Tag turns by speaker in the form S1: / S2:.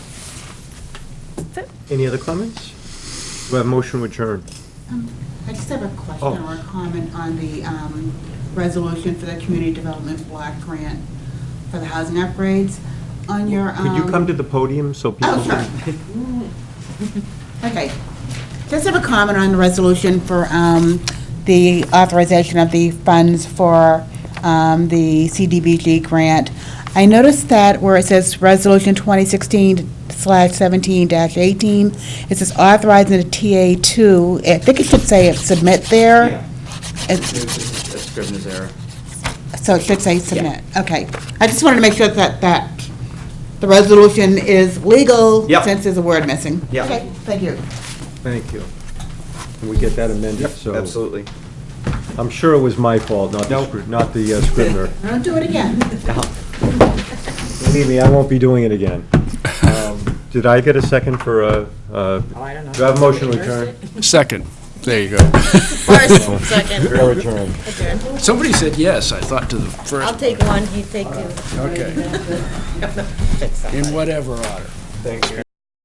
S1: That's it.
S2: Any other comments? We have motion adjourned.
S3: Um, I just have a question
S2: Oh.
S3: or a comment on the um, resolution for the community development block grant for the housing upgrades. On your.
S2: Could you
S3: um,
S2: come to the podium so people?
S3: Oh,
S2: can-
S3: sure. Okay. Just have a comment on the resolution for um, the authorization of the funds for um, the CDBG grant. I noticed that where it says Resolution 2016/17-18, it says authorizing the TA2, I think it should say submit there. It's-
S4: That's Scrivener's error.
S3: So it should say submit, okay. I just wanted to make sure that, that the resolution is legal.
S4: Yep.
S3: Since there's a word missing.
S4: Yep.
S3: Okay, thank you.
S2: Thank you. Can we get that amended? So
S4: Absolutely.
S2: I'm sure it was my fault, not the, Scrib- not the uh, Scrivener.
S3: Don't do it again.
S2: Believe me, I won't be doing it again. Um, Did I get a second for a, uh, do I have motion adjourned?
S5: Second. There you go.
S6: First, second,
S2: Or adjourned?
S6: adjourn.
S5: Somebody said yes, I thought, to the
S6: I'll
S5: first,
S6: take one, you take two.
S5: okay. In whatever order.
S2: Thank you.